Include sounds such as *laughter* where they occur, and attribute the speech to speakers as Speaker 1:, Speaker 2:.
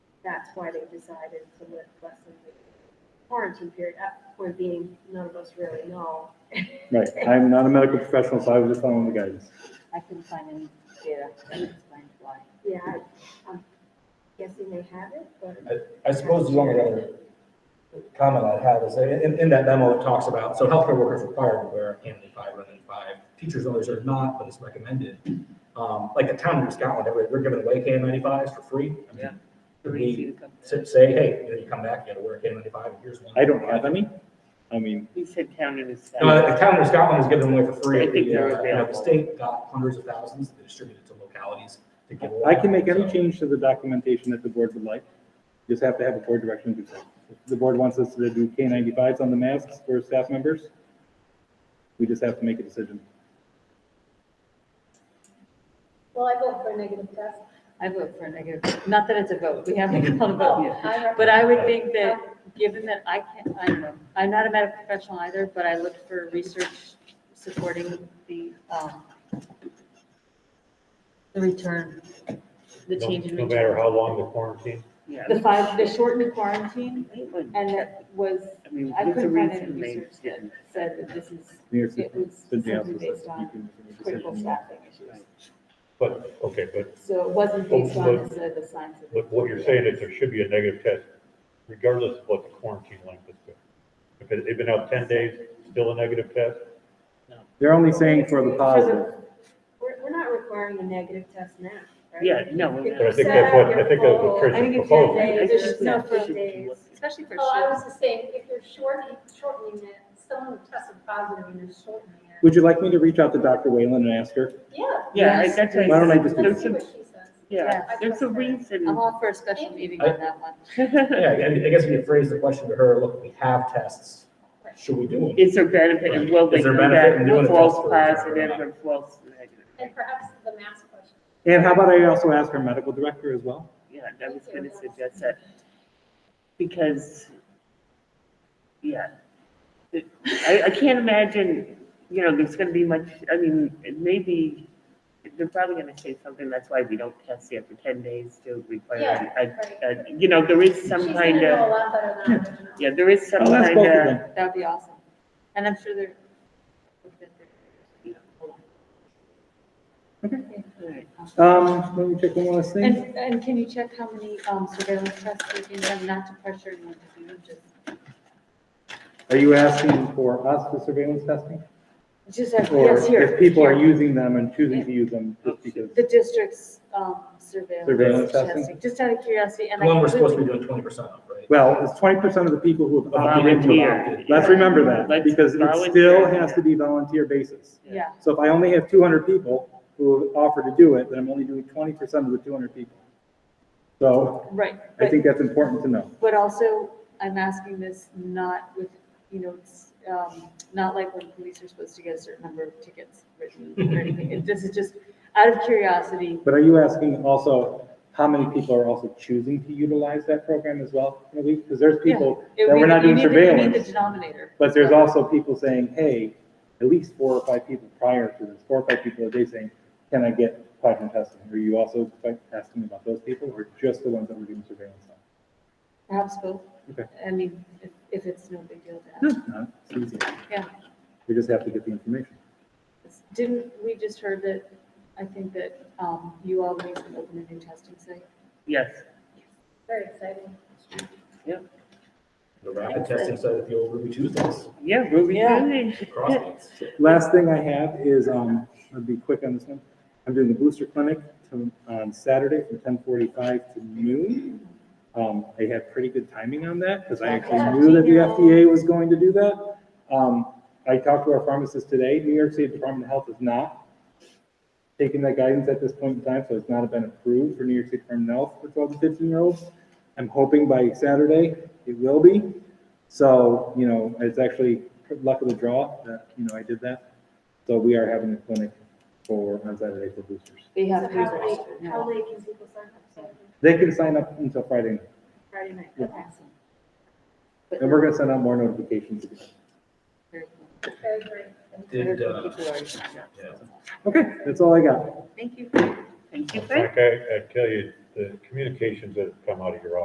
Speaker 1: that's why they decided to let lessen the quarantine period up, point being, none of us really know. *laughs*
Speaker 2: Right, I'm not a medical professional, so I was just following the guidance.
Speaker 3: I couldn't find any data that explained why.
Speaker 1: Yeah, I- I'm guessing they have it, but.
Speaker 4: I suppose the only other comment I'd have is that in, in that memo, it talks about, so healthcare workers required to wear N95 rather than five. Teachers and others are not, but it's recommended. Um, like the town in Scotland, they're, they're giving away KN95s for free. I mean,
Speaker 5: Yeah.
Speaker 4: could we sa- say, hey, you know, you come back, you gotta wear a KN95, and here's one.
Speaker 2: I don't have any. I mean,
Speaker 5: He said town in his.
Speaker 4: No, the town in Scotland is giving them away for free.
Speaker 5: I think they're
Speaker 4: The, uh, you know, The
Speaker 5: available.
Speaker 4: state got hundreds of thousands, they distributed to localities to give away.
Speaker 2: I can make
Speaker 4: So-
Speaker 2: any change to the documentation that the board would like. Just have to have a board direction to do so. If the board wants us to do K ninety-fives on the masks for staff members, we just have to make a decision.
Speaker 6: Well, I vote for a negative test.
Speaker 3: I vote for a negative, not that it's a vote, we haven't called a vote
Speaker 6: Oh,
Speaker 3: yet.
Speaker 6: I
Speaker 3: *laughs*
Speaker 6: recommend-
Speaker 3: But I would think that, given that I can't, I don't know, I'm not a medical professional either, but I looked for research supporting the, um, the return, the
Speaker 7: No-
Speaker 3: change in
Speaker 7: No matter
Speaker 3: return.
Speaker 7: how long the quarantine,
Speaker 5: Yeah.
Speaker 3: The five, the shortened quarantine, and
Speaker 5: I
Speaker 3: that was,
Speaker 5: mean,
Speaker 3: I
Speaker 5: what's the
Speaker 3: couldn't find any
Speaker 5: reason they
Speaker 3: research that
Speaker 5: didn't?
Speaker 3: said that this is,
Speaker 2: New York City-
Speaker 3: it was
Speaker 2: City also
Speaker 3: simply
Speaker 2: says
Speaker 3: based
Speaker 2: that you
Speaker 3: on
Speaker 2: can make a
Speaker 3: critical
Speaker 2: decision.
Speaker 3: staffing issues.
Speaker 7: but, okay, but,
Speaker 3: So it wasn't based on the the science of.
Speaker 7: but what you're saying is there should be a negative test regardless of what the quarantine length has been. If it, it been out ten days, still a negative test,
Speaker 2: They're only saying for the positive.
Speaker 1: We're, we're not requiring a negative test now, right?
Speaker 5: Yeah, no.
Speaker 1: If
Speaker 7: but I
Speaker 1: you
Speaker 3: uh,
Speaker 7: think
Speaker 1: set
Speaker 7: that's what,
Speaker 1: up
Speaker 7: I
Speaker 1: your
Speaker 7: think that's
Speaker 1: poll-
Speaker 7: what
Speaker 1: I think
Speaker 7: Chris
Speaker 1: it's
Speaker 7: proposed.
Speaker 1: ten
Speaker 5: I
Speaker 1: days,
Speaker 5: just-
Speaker 1: there's no
Speaker 5: yeah,
Speaker 1: four
Speaker 5: she-
Speaker 1: days.
Speaker 3: Especially for
Speaker 6: Oh, I
Speaker 3: short.
Speaker 6: was just saying, if you're shortening, shortening it, someone tested positive and you're shortening it.
Speaker 2: Would you like me to reach out to Dr. Whalen and ask her?
Speaker 6: Yeah.
Speaker 5: Yeah, I-
Speaker 3: Yes.
Speaker 5: that's right.
Speaker 2: Why don't I just do
Speaker 5: There's
Speaker 6: Let's see
Speaker 5: a,
Speaker 6: what she says.
Speaker 5: yeah,
Speaker 6: Yes.
Speaker 5: there's a reason. *laughs*
Speaker 3: I'm all for a special meeting on that one.
Speaker 4: Yeah, I I guess we could phrase the question to her, look, we have tests, should we do them?
Speaker 5: Is there benefit and will they
Speaker 4: Is there
Speaker 5: come
Speaker 4: benefit in
Speaker 5: back
Speaker 4: doing a
Speaker 5: false
Speaker 4: test for
Speaker 5: positive
Speaker 4: example?
Speaker 5: or false negative?
Speaker 6: And perhaps the mask question.
Speaker 2: And how about I also ask our medical director as well?
Speaker 5: Yeah, I was gonna suggest that, because, yeah. It- I, I can't imagine, you know, there's gonna be much, I mean, it may be they're probably gonna say something, that's why we don't test yet for ten days to
Speaker 6: Yeah,
Speaker 5: require, a-
Speaker 6: right.
Speaker 5: a- you know, there is some
Speaker 6: She's gonna
Speaker 5: kind
Speaker 6: know a
Speaker 5: of,
Speaker 6: lot better than I would know.
Speaker 5: yeah, there is some
Speaker 2: I'll ask
Speaker 5: kind
Speaker 2: both of
Speaker 5: of,
Speaker 2: them.
Speaker 3: That would be awesome. And I'm sure they're. you know, hold on.
Speaker 5: Alright.
Speaker 2: Um, let me check one last thing.
Speaker 3: And, and can you check how many um, surveillance tests we can have, not to pressure anyone to do, just,
Speaker 2: Are you asking for us for surveillance testing?
Speaker 3: just have,
Speaker 2: Or
Speaker 3: yes, here.
Speaker 2: if people are
Speaker 3: here.
Speaker 2: using them and choosing to use them just because?
Speaker 3: The district's um, surveillance
Speaker 2: Surveillance testing?
Speaker 3: testing, just out of curiosity, and
Speaker 4: The one
Speaker 3: I
Speaker 4: we're supposed to
Speaker 3: completely,
Speaker 4: be doing twenty percent of, right?
Speaker 2: Well, it's twenty percent of the people who have opted into
Speaker 5: Volunteer.
Speaker 2: it. Let's remember that,
Speaker 5: Let's
Speaker 2: because it still
Speaker 5: volunteer.
Speaker 2: has to be volunteer basis.
Speaker 3: yeah.
Speaker 2: So if I only have two hundred people who have offered to do it, then I'm only doing twenty percent of the two hundred people. So
Speaker 3: Right,
Speaker 2: I
Speaker 3: but,
Speaker 2: think that's important to know.
Speaker 3: but also, I'm asking this not with, you know, it's, um, not like when police are supposed to get a certain number of tickets written
Speaker 2: Mm-hmm.
Speaker 3: or anything. It- This is just out of curiosity.
Speaker 2: But are you asking also how many people are also choosing to utilize that program as well? Because there's people
Speaker 3: It-
Speaker 2: that
Speaker 3: we-
Speaker 2: we're not
Speaker 3: you
Speaker 2: doing
Speaker 3: need the- you need
Speaker 2: surveillance.
Speaker 3: the denominator.
Speaker 2: But there's also people saying, hey, at least four or five people prior to this, four or five people a day saying, can I get plasma testing? Are you also like, asking about those people or just the ones that we're doing surveillance on?
Speaker 3: Perhaps both.
Speaker 2: Okay. Hmm.
Speaker 3: I mean, if, if it's no big deal to ask.
Speaker 2: No, no, it's easy.
Speaker 3: Yeah.
Speaker 2: We just have to get the information.
Speaker 3: Didn't, we just heard that, I think that, um, you all need to open a new testing site?
Speaker 5: yes.
Speaker 6: Very exciting.
Speaker 4: The rapid testing side of the old Ruby Tuesdays,
Speaker 5: Yeah, Ruby
Speaker 3: Yeah.
Speaker 5: Tuesday.
Speaker 4: crossfits.
Speaker 2: Last thing I have is, um, I'll be quick on this one. I'm doing the booster clinic to- on Saturday from ten forty-five to noon. Um, I had pretty good timing on that because I actually knew that the FDA was going to do that. Um, I talked to our pharmacist today. New York State Department of Health is not taking that guidance at this point in time, so it's not been approved for New York State Department of Health for twelve to fifteen year olds. I'm hoping by Saturday it will be. So, you know, it's actually luck of the draw that, you know, I did that. So we are having a clinic for on Saturday for boosters.
Speaker 3: They
Speaker 1: So
Speaker 3: have. to
Speaker 1: how
Speaker 3: register
Speaker 1: late,
Speaker 3: now.
Speaker 1: how late can people sign up? So
Speaker 2: They can sign up until Friday, night,
Speaker 1: Friday night,
Speaker 2: Yeah.
Speaker 1: okay.
Speaker 2: and we're gonna send out more notifications.
Speaker 3: Very cool.
Speaker 6: Very great.
Speaker 4: Did, uh, yeah.
Speaker 2: Okay, that's all I got.
Speaker 3: Thank you.
Speaker 5: Thank you, Fred.
Speaker 7: like I, I tell you, the communications that have come out of your office